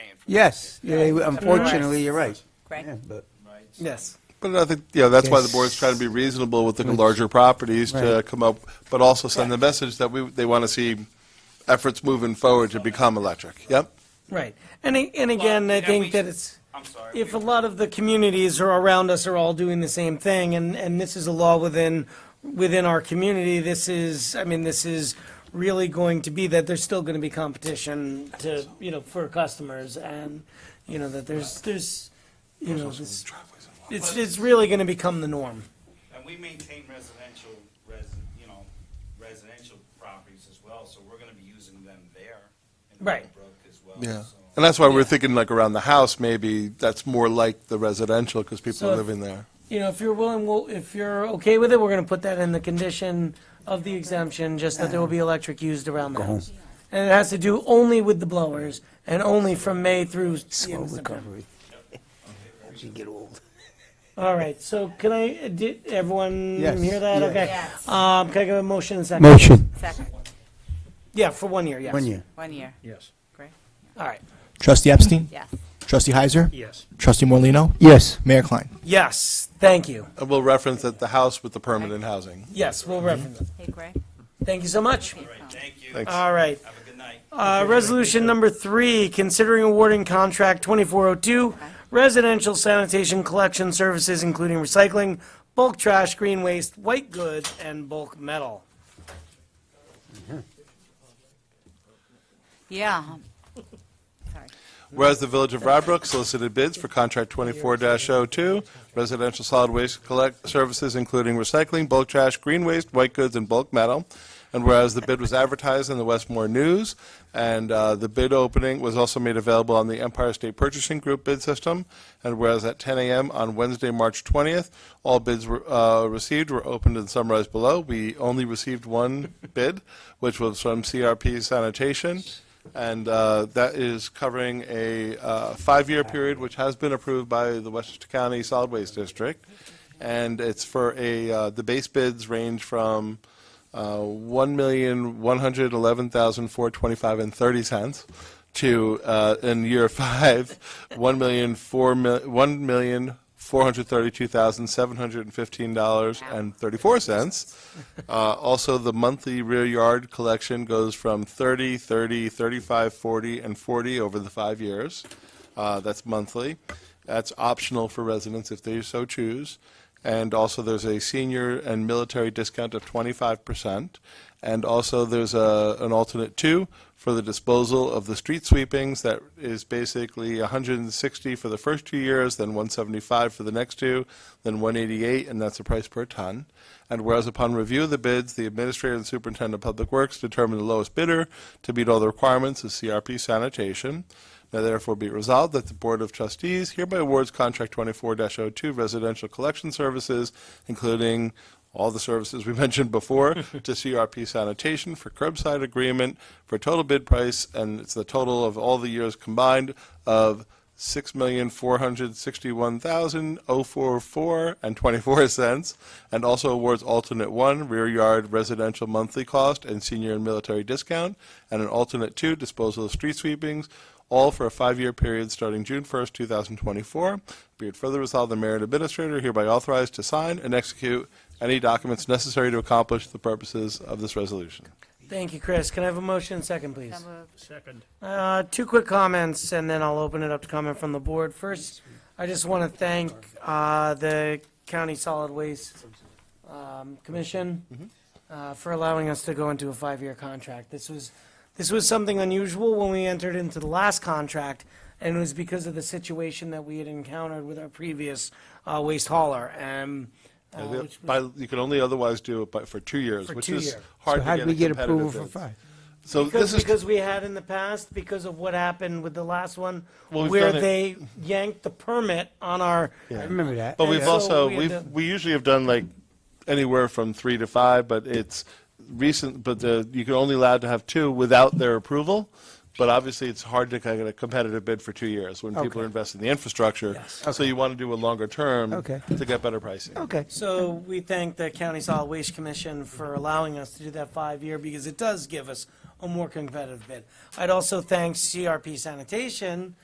Yes, yeah, unfortunately, you're right. Greg? Yeah, but- right? So- Yes. But I think, you know, that's why the Yes. board's trying to be reasonable with the larger properties to Right. come up, but also send the message that we, they want to see efforts moving forward to become electric. Yep. Right. And, a- and again, I and we- think that it's, I'm sorry. if a we- lot of the communities are around us are all doing the same thing, and, and this is a law within, within our community, this is, I mean, this is really going to be that there's still gonna be competition to, you know, for customers, and, you know, that there's, there's, you know, this, it's, it's really gonna become the norm. And we maintain residential, res, you know, residential properties as well, so we're gonna be using them there. in Right. Willowbrook as well, Yeah. so- And that's why we're thinking like around the house, maybe that's more like the residential because people So are if- living there. You know, if you're willing, we'll, if you're okay with it, we're gonna put that in the condition of the exemption, just that there will be electric used around the Oh, house. And it Oh, has to do only with the blowers, and only from May through the end Slow of September. recovery. As you get old. All right, so can I, did everyone Yes. hear that? Yeah. Okay. Yes. Um, can I get a motion and a second? Motion. Second, Yeah, for one year, yes. One year. one year. Yes. Greg? All right. Trustee Epstein? Yes. Trustee Heiser? Yes. Trustee Morlino, Yes. Mayor Klein? Yes, thank you. And we'll reference that the house with the permanent housing. Yes, we'll reference it. Hey, Greg? Thank you so much. Hey, Right, Tom. thank you. Thanks. All right. Have a good night. Uh, Resolution number three, considering awarding contract 2402 residential sanitation collection services, including recycling, bulk trash, green waste, white goods, and bulk metal. Yeah. Sorry. Whereas the Village of Rybrook solicited bids for contract 24-02, residential solid waste collect services including recycling, bulk trash, green waste, white goods, and bulk metal. And whereas the bid was advertised in the Westmore News, and uh, the bid opening was also made available on the Empire State Purchasing Group bid system. And whereas at 10 a.m. on Wednesday, March 20th, all bids were, uh, received were opened and summarized below. We only received one bid, which was from CRP Sanitation. And uh, that is covering a uh, five-year period, which has been approved by the Westchester County Solid Waste District. And it's for a, uh, the base bids range from uh, $1,111,425 and 30 cents to, uh, in year five, $1,432,715 and 34 cents. Uh, also, the monthly rear yard collection goes from 30, 30, 35, 40, and 40 over the five years. Uh, that's monthly. That's optional for residents if they so choose. And also, there's a senior and military discount of 25%. And also, there's a, an alternate two for the disposal of the street sweepings that is basically 160 for the first two years, then 175 for the next two, then 188, and that's the price per ton. And whereas upon review of the bids, the administrator and superintendent of public works determined the lowest bidder to meet all the requirements of CRP sanitation. Now therefore be it resolved that the Board of Trustees hereby awards contract 24-02 residential collection services, including all the services we mentioned before, to CRP Sanitation for curbside agreement for total bid price, and it's the total of all the years combined of six million four hundred sixty-one thousand oh four four and twenty-four cents, and also awards alternate one rear yard residential monthly cost and senior and military discount, and an alternate two disposal of street sweepings, all for a five-year period starting June 1st, 2024. Be it further resolved, the mayor and administrator hereby authorized to sign and execute any documents necessary to accomplish the purposes of this resolution. Thank you, Chris. Can I have a motion and a second, please? So moved. Uh, Two quick comments, and then I'll open it up to comment from the board. First, I just want to thank uh, the County Solid Waste um, Mm-hmm. Commission uh, for allowing us to go into a five-year contract. This was, this was something unusual when we entered into the last contract, and it was because of the situation that we had encountered with our previous uh, waste hauler. And uh, which was- By- You can only otherwise do it by- for two years, For which two is years. hard So how to did we get get a approval competitive for bid. five? So Because, this is, because we had in the past, because of what happened with the last one, Well, we've where done it- they yanked the permit on our, I remember that. but we've so also, we had we've, done- we usually have done like anywhere from three to five, but it's recent, but the- you can only allowed to have two without their approval. But obviously, it's hard to get a competitive bid for two years when people Okay. are investing in the infrastructure. Yes. So you want to do a longer term Okay. to get better pricing. Okay. so we thank the County Solid Waste Commission for allowing us to do that five-year, because it does give us a more competitive bid. I'd also thank CRP Sanitation